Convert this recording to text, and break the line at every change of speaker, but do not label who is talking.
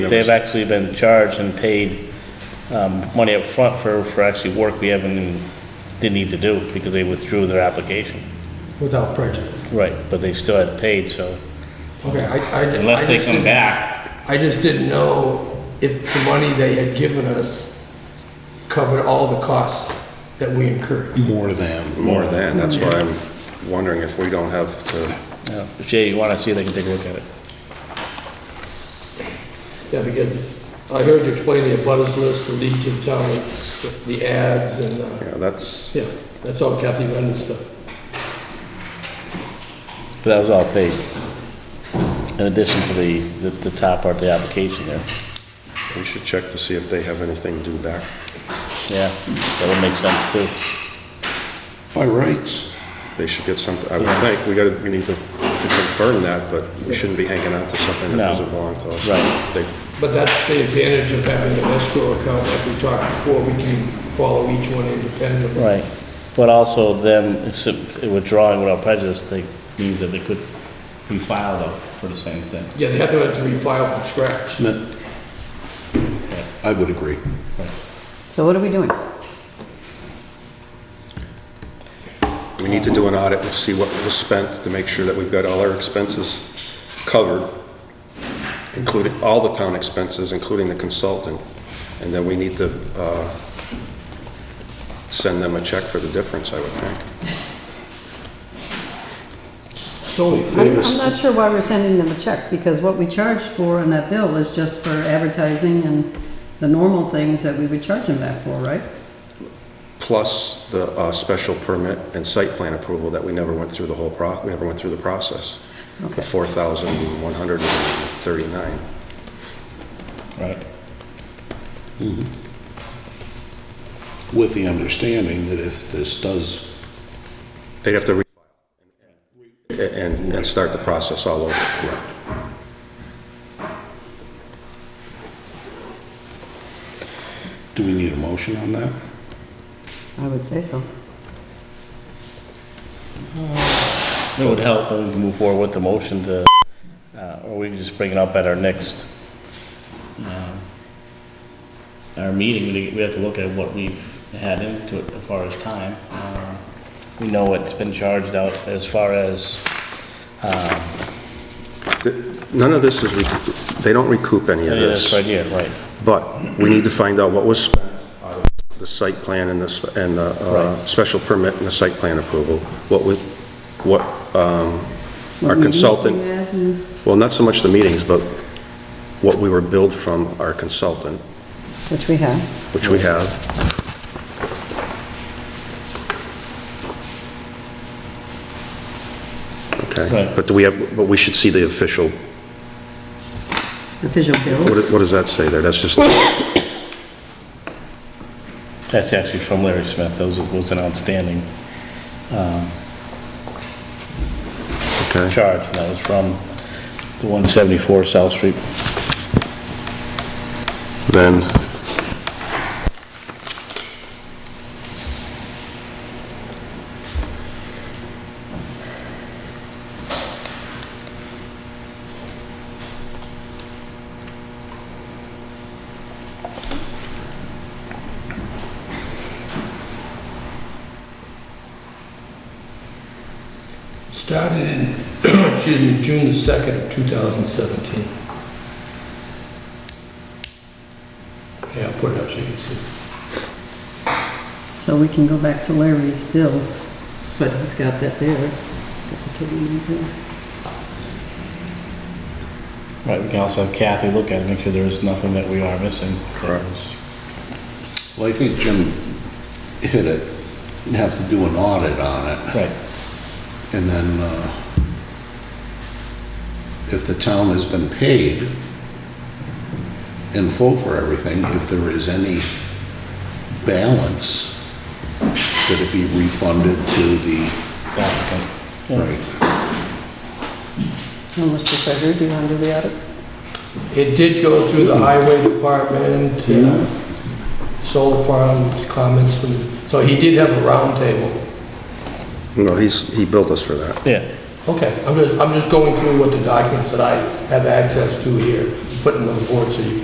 They've actually been charged and paid um, money up front for, for actually work we haven't, even- didn't need to do because they withdrew their application.
without prejudice.
Right, but they still had paid, so
Okay, I, I. I
unless they
just
come
didn't-
back,
I just didn't know if the money they had given us covered all the costs that we incurred.
more than.
more than, that's why I'm wondering if we don't have to,
yeah. If Jay, you want to see, they can take a look at it.
Yeah, because I heard you explain the abutters list, the Legion Town, the ads and, uh,
yeah, that's,
yeah, that's all Kathy Lennon stuff.
But that was all paid. In addition to the, the the top part of the application there.
we should check to see if they have anything due back.
Yeah, that would make sense too.
By rights,
They should get something, I would think, we gotta, we need to to confirm that, but we shouldn't be hanging on to something
No.
that doesn't belong to us.
Right.
They-
But that's the advantage of having an escrow account, like we talked before, we can follow each one independently.
Right. But also them accept- withdrawing without prejudice, they, means that they could be filed up for the same thing.
Yeah, they have to have to refile from scratch.
that, I would agree.
So what are we doing?
We need to do an audit, and see what was spent, to make sure that we've got all our expenses covered, including all the town expenses, including the consultant, and then we need to uh, send them a check for the difference, I would think.
It's only
I'm, I'm
fair.
not sure why we're sending them a check, because what we charged for on that bill was just for advertising and the normal things that we would charge them that for, right?
plus the uh, special permit and site plan approval that we never went through the whole pro, we never went through the process. The
Okay.
4,139.
Right.
With the understanding that if this does,
They'd have to refile and, and start the process all over. Correct.
do we need a motion on that?
I would say so.
It would help when we can move forward with the motion to, uh, or we can just bring it up at our next, um, our meeting, we we have to look at what we've had into it as far as time. Uh, We know what's been charged out as far as,
Th- None of this is, recoup- they don't recoup any of
yeah, this
this.
right here, right,
But we need to find out what was spent out of the site plan and the, sp- and the uh,
Right.
special permit and the site plan approval. What was, what um, our
meetings
consultant
we had and-
Well, not so much the meetings, but what we were billed from our consultant,
Which we have.
which we have. Okay,
Right.
but do we have, but we should see the official, what
Official bills.
do- what does that say there? That's just,
that's actually from Larry Smith, those was an outstanding
okay.
charge, and that was from the 174 South Street.
Then,
Started in, excuse me, June the 2nd of 2017. Yeah, I'll put it up so you can see.
So we can go back to Larry's bill, but he's got that there. Got the total amount there.
Right, we can also have Kathy look at it, make sure there's nothing that we are missing. Correct.
Well, I think Jim hit it, you'd have to do an audit on it,
Right,
and then, uh, if the town has been paid in full for everything, if there is any balance, that it be refunded to the,
applicant.
right?
Well, Mr. Treasurer, do you want to do the audit?
It did go through the highway department, uh, solar farms, comments from, so he did have a roundtable.
no, he's, he billed us for that.
Yeah,
Okay, I'm just, I'm just going through what the documents that I have access to here. putting on board so you